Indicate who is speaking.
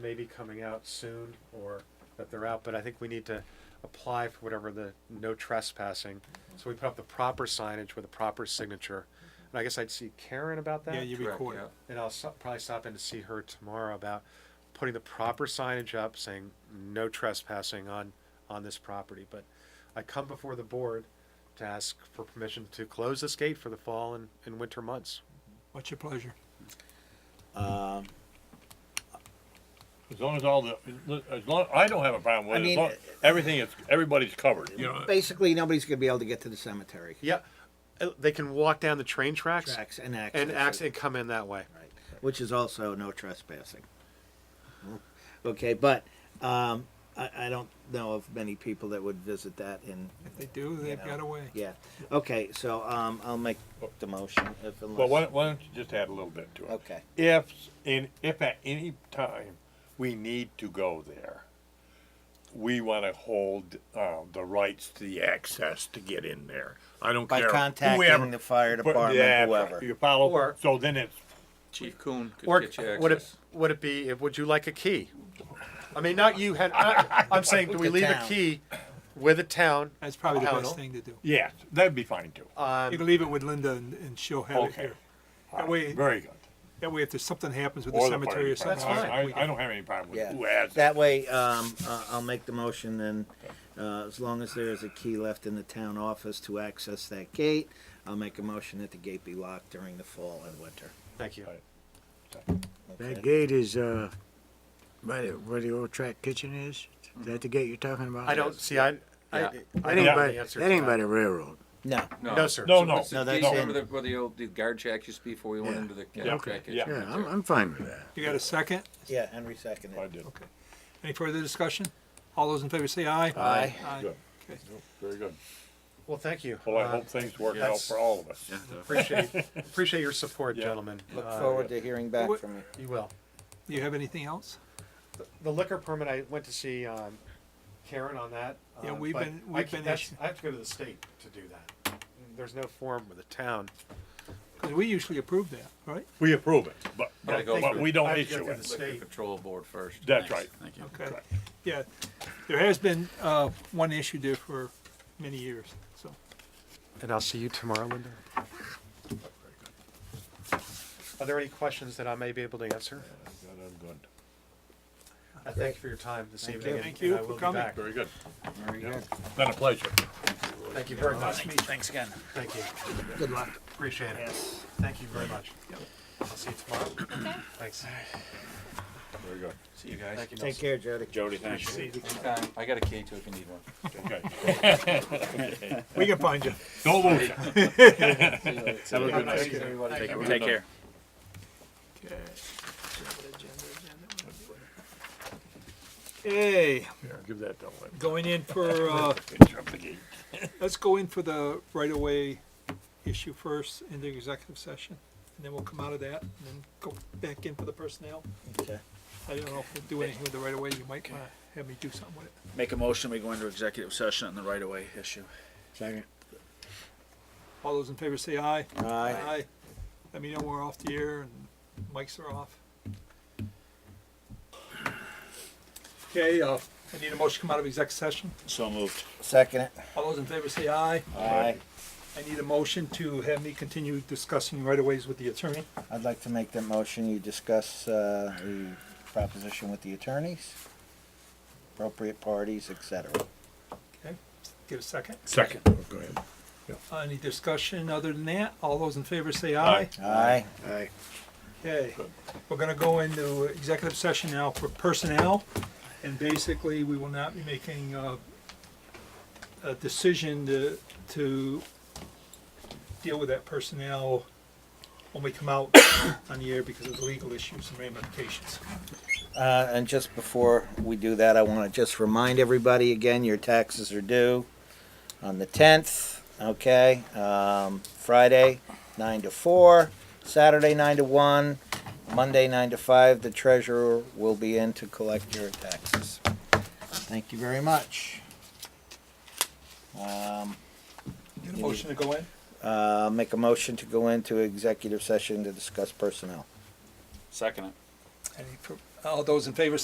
Speaker 1: may be coming out soon or that they're out, but I think we need to apply for whatever the no trespassing. So we put up the proper signage with a proper signature. And I guess I'd see Karen about that.
Speaker 2: Yeah, you
Speaker 3: Correct,
Speaker 2: record
Speaker 3: yeah.
Speaker 2: it.
Speaker 1: And I'll so- probably stop in to see her tomorrow about putting the proper signage up saying no trespassing on, on this property. But I come before the board to ask for permission to close this gate for the fall and, and winter months.
Speaker 2: What's your pleasure?
Speaker 4: Um,
Speaker 5: As long as all the, as long, I don't have a problem
Speaker 4: I
Speaker 5: with it, as
Speaker 4: mean,
Speaker 5: long, everything is, everybody's covered.
Speaker 2: You know,
Speaker 4: basically, nobody's gonna be able to get to the cemetery
Speaker 1: Yeah, uh, they can walk down the train tracks
Speaker 4: tracks and access.
Speaker 1: and ax and come in that way.
Speaker 4: Right, which is also no trespassing. Okay, but, um, I, I don't know of many people that would visit that in,
Speaker 2: if they do,
Speaker 4: you
Speaker 2: they've
Speaker 4: know,
Speaker 2: got a way.
Speaker 4: Yeah, okay, so, um, I'll make the motion if unless.
Speaker 5: Well, why, don't- why don't you just add a little bit to it?
Speaker 4: Okay,
Speaker 5: If, in, if at any time we need to go there, we wanna hold, uh, the rights to the access to get in there. I don't
Speaker 4: by
Speaker 5: care.
Speaker 4: contacting
Speaker 5: whoever-
Speaker 4: the fire
Speaker 5: but-
Speaker 4: department,
Speaker 5: yeah,
Speaker 4: whoever.
Speaker 5: You follow,
Speaker 1: Or-
Speaker 5: so then it's,
Speaker 3: Chief Coon could
Speaker 1: Or
Speaker 3: get you
Speaker 1: would it
Speaker 3: access.
Speaker 1: would it be? Would you like a key? I mean, not you. Had I, I'm saying, do we
Speaker 4: The
Speaker 1: leave a
Speaker 4: town.
Speaker 1: key with a town?
Speaker 2: That's probably the
Speaker 1: How no?
Speaker 2: best thing to do.
Speaker 5: yes, that'd be fine too.
Speaker 2: You
Speaker 1: Um,
Speaker 2: can leave it with Linda and, and she'll have it
Speaker 5: Okay.
Speaker 2: here. That way,
Speaker 5: Uh, Very good.
Speaker 2: that way if there's something happens with the
Speaker 5: Or fire
Speaker 2: cemetery or
Speaker 5: department.
Speaker 2: something.
Speaker 1: That's fine.
Speaker 5: I, I- I don't have any problem with
Speaker 4: Yeah,
Speaker 5: who has it.
Speaker 4: that way, um, uh, I'll make the motion and, uh, as long as there is a key left in the town office to access that gate, I'll make a motion that the gate be locked during the fall and winter.
Speaker 1: thank you.
Speaker 6: That
Speaker 4: Okay?
Speaker 6: gate is, uh, by the, where the old track kitchen is? Is that the gate you're talking about?
Speaker 1: I don't see. I I,
Speaker 3: Yeah.
Speaker 1: I
Speaker 6: That
Speaker 1: don't
Speaker 6: ain't
Speaker 1: know
Speaker 6: by,
Speaker 1: the answer.
Speaker 6: that
Speaker 1: to
Speaker 6: ain't by the railroad.
Speaker 4: No,
Speaker 1: No, sir.
Speaker 5: No, no.
Speaker 4: No, that's
Speaker 5: no.
Speaker 4: in-
Speaker 3: Remember the, where the old, the guard shack used to be before we went
Speaker 6: Yeah.
Speaker 3: into the
Speaker 5: Yeah,
Speaker 3: guard shack?
Speaker 5: yeah.
Speaker 6: Yeah, I'm, I'm fine with that.
Speaker 2: You got a second?
Speaker 4: yeah, Henry seconded.
Speaker 5: I did.
Speaker 2: Okay. Any further discussion? All those in favor say aye.
Speaker 4: Aye.
Speaker 2: Aye.
Speaker 5: Good.
Speaker 2: Okay.
Speaker 5: Very good.
Speaker 1: Well, thank you.
Speaker 5: Well, I
Speaker 1: Uh,
Speaker 5: hope things work out
Speaker 1: that's-
Speaker 5: for all of us.
Speaker 1: appreciate appreciate your support,
Speaker 5: Yeah.
Speaker 1: gentlemen.
Speaker 4: Look
Speaker 1: Uh,
Speaker 4: forward to hearing back
Speaker 2: Wh-
Speaker 4: from you.
Speaker 1: You will.
Speaker 2: Do you have anything else?
Speaker 1: The liquor permit. I went to see um, Karen on that.
Speaker 2: Yeah,
Speaker 1: um,
Speaker 2: we've
Speaker 1: but
Speaker 2: been-
Speaker 1: I
Speaker 2: we've
Speaker 1: ca-
Speaker 2: been
Speaker 1: that's-
Speaker 2: issue-
Speaker 1: I have to go to the state to do that. There's no form with the town.
Speaker 2: Because we usually approve that, right?
Speaker 5: We approve it, but,
Speaker 3: But I
Speaker 5: but
Speaker 3: go
Speaker 5: but
Speaker 3: through-
Speaker 5: we
Speaker 1: I
Speaker 5: don't
Speaker 1: have to go
Speaker 5: issue
Speaker 1: through the
Speaker 5: it.
Speaker 3: Liquor
Speaker 1: state.
Speaker 3: control board first.
Speaker 5: That's right.
Speaker 2: Okay. Yeah. There has been, uh, one issue there for many years, so.
Speaker 1: And I'll see you tomorrow, Linda. Are there any questions that I may be able to answer?
Speaker 5: Good, I'm good.
Speaker 1: I thank you for your time this evening. and-
Speaker 2: Thank you
Speaker 1: and I
Speaker 2: for
Speaker 1: will be
Speaker 2: coming.
Speaker 1: back.
Speaker 5: Very good.
Speaker 4: Very good.
Speaker 5: Been a pleasure.
Speaker 1: Thank you very much.
Speaker 4: Thanks again.
Speaker 1: Thank you.
Speaker 4: Good luck.
Speaker 1: Appreciate it.
Speaker 4: Yes.
Speaker 1: Thank you very much. I'll see you tomorrow. Thanks.
Speaker 5: Very good.
Speaker 3: See you guys.
Speaker 1: Thank you,
Speaker 4: Take
Speaker 1: Nelson.
Speaker 4: care, Jody.
Speaker 5: Jody, thanks.
Speaker 3: Anytime. I got a key too if you need one.
Speaker 5: Okay.
Speaker 2: We can find you.
Speaker 5: Don't lose it.
Speaker 3: See you later.
Speaker 5: Have a good
Speaker 1: Thank you.
Speaker 5: night.
Speaker 3: Everybody.
Speaker 5: Take care.
Speaker 2: Okay. Okay,
Speaker 5: Give that to him.
Speaker 2: going in for, uh,
Speaker 5: Jump the gate.
Speaker 2: let's go in for the right-of-way issue first in the executive session, and then we'll come out of that, and then go back in for the personnel.
Speaker 4: Okay.
Speaker 2: I don't know if we'll do anything with the right-of-way, you might wanna have me do something with it.
Speaker 7: Make a motion, we go into executive session on the right-of-way issue.
Speaker 6: Second.
Speaker 2: All those in favor say aye.
Speaker 4: Aye.
Speaker 2: Aye. Let me know we're off the air and mics are off. Okay, uh, I need a motion to come out of exec session.
Speaker 7: So moved.
Speaker 4: Second it.
Speaker 2: All those in favor say aye.
Speaker 4: Aye.
Speaker 2: I need a motion to have me continue discussing right-of-ways with the attorney.
Speaker 4: I'd like to make the motion. You discuss, uh, the proposition with the attorneys, appropriate parties, et cetera.
Speaker 2: Okay, give a second.
Speaker 5: Second. Oh, Go ahead.
Speaker 2: Uh, Any discussion other than that? All those in favor say aye.
Speaker 4: Aye.
Speaker 6: Aye.
Speaker 2: Okay, we're gonna go into executive session now for personnel, and basically, we will not be making uh, a decision to, to deal with that personnel when we come out on the air because of the legal issues and ramifications.
Speaker 4: Uh, and just before we do that, I want to just remind everybody again, your taxes are due on the tenth, okay? Um, Friday, nine to four, Saturday, nine to one, Monday, nine to five, the treasurer will be in to collect your taxes. Thank you very much. Um,
Speaker 2: Get a motion to go in?
Speaker 4: uh, make a motion to go into executive session to discuss personnel.
Speaker 7: Second it.
Speaker 2: Any fir- All those in favor